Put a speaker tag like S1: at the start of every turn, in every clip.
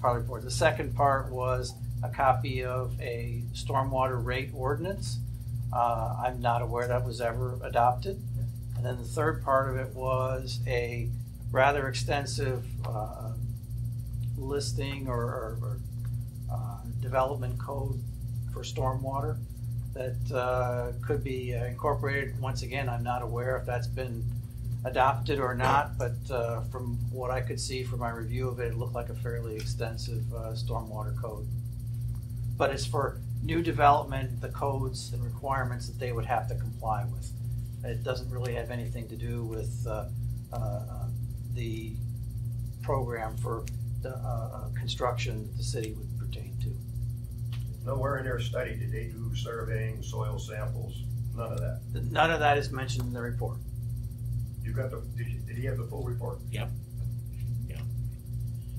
S1: Parley Board. The second part was a copy of a stormwater rate ordinance. Uh, I'm not aware that was ever adopted. And then the third part of it was a rather extensive uh, listing or- or or, uh, development code for stormwater that uh, could be incorporated. Once again, I'm not aware if that's been adopted or not, but uh, from what I could see from my review of it, it looked like a fairly extensive uh, stormwater code. But it's for new development, the codes and requirements that they would have to comply with. It doesn't really have anything to do with uh, uh, the program for the uh, uh, construction that the city would pertain to.
S2: Nowhere in their study did they do surveying, soil samples, none of that.
S1: None of that is mentioned in the report.
S2: You got the, did you- did he have the full report?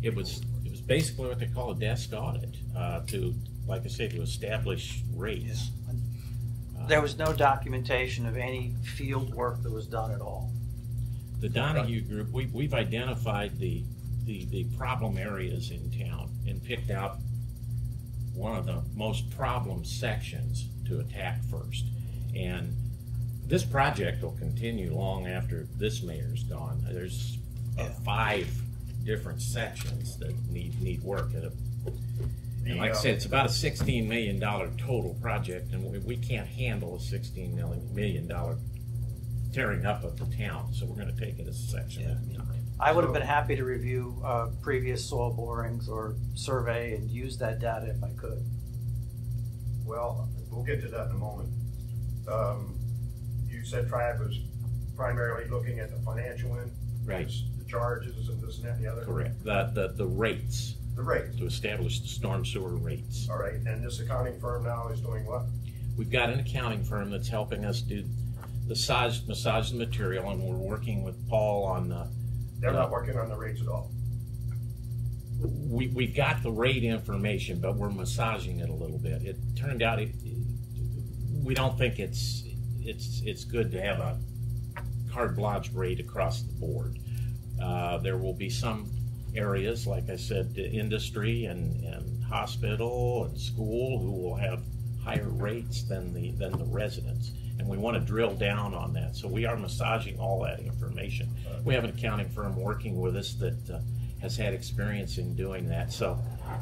S3: It was, it was basically what they call a desk audit, uh, to, like I said, to establish rates. Uh,
S1: There was no documentation of any field work that was done at all.
S3: The Donahue Group, we, we've identified the, the, the problem areas in town and picked out one of the most problem sections to attack first. And this project will continue long after this mayor's gone. There's uh,
S1: Yeah.
S3: five different sections that need, need work. And
S2: The,
S3: And like I
S2: uh,
S3: said, it's about a sixteen million dollar total project, and we, we can't handle a sixteen million, million dollar tearing up of the town, so we're gonna take it a section at a time.
S1: I would have been happy to review uh, previous soil borings or survey and use that data if I could.
S2: Well, we'll get to that in a moment. Um, you said Triad was primarily looking at the financial end.
S3: Right.
S2: The charges and this and that and the other.
S3: Correct, the, the, the rates,
S2: The rate,
S3: to establish the storm sewer rates.
S2: all right, and this accounting firm now is doing what?
S3: We've got an accounting firm that's helping us do the size, massage the material, and we're working with Paul on uh, the
S2: They're not
S3: Yeah.
S2: working on the rates at all.
S3: we, we've got the rate information, but we're massaging it a little bit. It turned out it, we don't think it's it's it's good to have a card blotch rate across the board. Uh, there will be some areas, like I said, the industry and, and hospital and school who will have higher rates than the than the residents. And we want to drill down on that. So we are massaging all that information. We have an accounting firm working with us that uh, has had experience in doing that. So,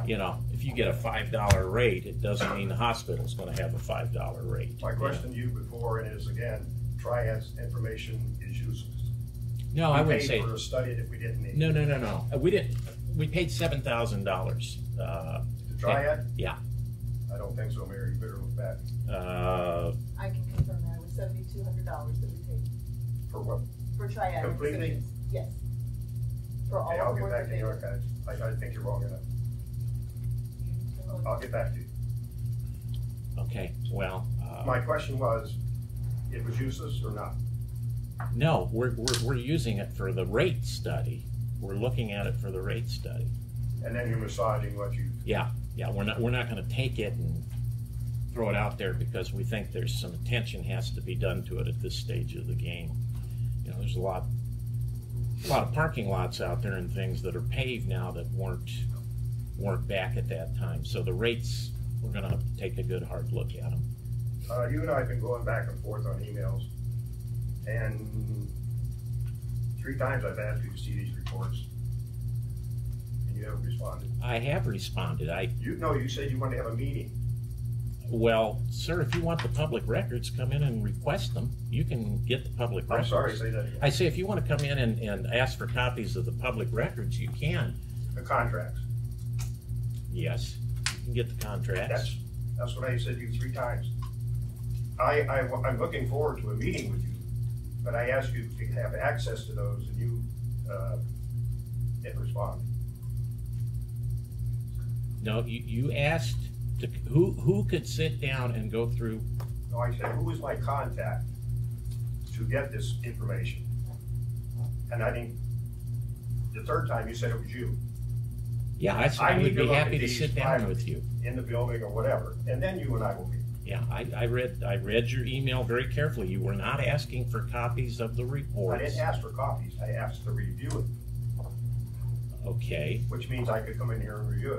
S3: you know, if you get a five dollar rate, it doesn't mean the hospital's going to have a five dollar rate.
S2: My question to you before and is again, Triad's information is useless.
S3: No, I
S2: We
S3: wouldn't
S2: paid
S3: say
S2: For a study that we didn't need.
S3: no, no, no, no. Uh, We didn't. We paid seven thousand dollars. uh,
S2: The Triad?
S3: Yeah.
S2: I don't think so, Mayor, you better look back.
S3: uh,
S4: I can confirm that it was seventy-two hundred dollars that we paid
S2: For what?
S4: for triad.
S2: Completely?
S4: decisions. Yes. For all
S2: Hey, I'll
S4: of the
S2: get
S4: work
S2: back
S4: that
S2: to
S4: they
S2: you,
S4: did.
S2: okay? I, I think you're wrong enough. I'll get back to you.
S3: Okay. Well, uh,
S2: My question was, it was useless or not?
S3: no, we're, we're we're using it for the rate study. We're looking at it for the rate study.
S2: And then you're massaging what you,
S3: Yeah, yeah. We're not we're not going to take it and throw it out there because we think there's some attention has to be done to it at this stage of the game. You know, there's a lot a lot of parking lots out there and things that are paved now that weren't weren't back at that time. So the rates, we're going to take a good hard look at them.
S2: uh, you and I have been going back and forth on emails. And three times I've asked you to see these reports. And you haven't responded.
S3: I have responded. I
S2: You, no, you said you wanted to have a meeting.
S3: well, sir, if you want the public records, come in and request them. You can get the public
S2: I'm
S3: records.
S2: sorry, say that again.
S3: I say if you want to come in and, and ask for copies of the public records, you can.
S2: The contracts.
S3: Yes, you can get the
S2: That's,
S3: contracts.
S2: that's what I said to you three times. I, I, am looking forward to a meeting with you, but I asked you to have access to those and you, uh, didn't respond.
S3: No, you, you asked to, who, who could sit down and go through,
S2: No, I said, who is my contact to get this information? And I think the third time you said it was you
S3: yeah, I said
S2: I
S3: I
S2: need
S3: would
S2: to
S3: be
S2: look at
S3: happy to
S2: these
S3: sit down
S2: privately.
S3: with you.
S2: in the building or whatever, and then you and I will meet.
S3: Yeah, I, I read, I read your email very carefully. You were not asking for copies of the
S2: I
S3: reports.
S2: didn't ask for copies, I asked to review it.
S3: Okay.
S2: which means I could come in here and review it.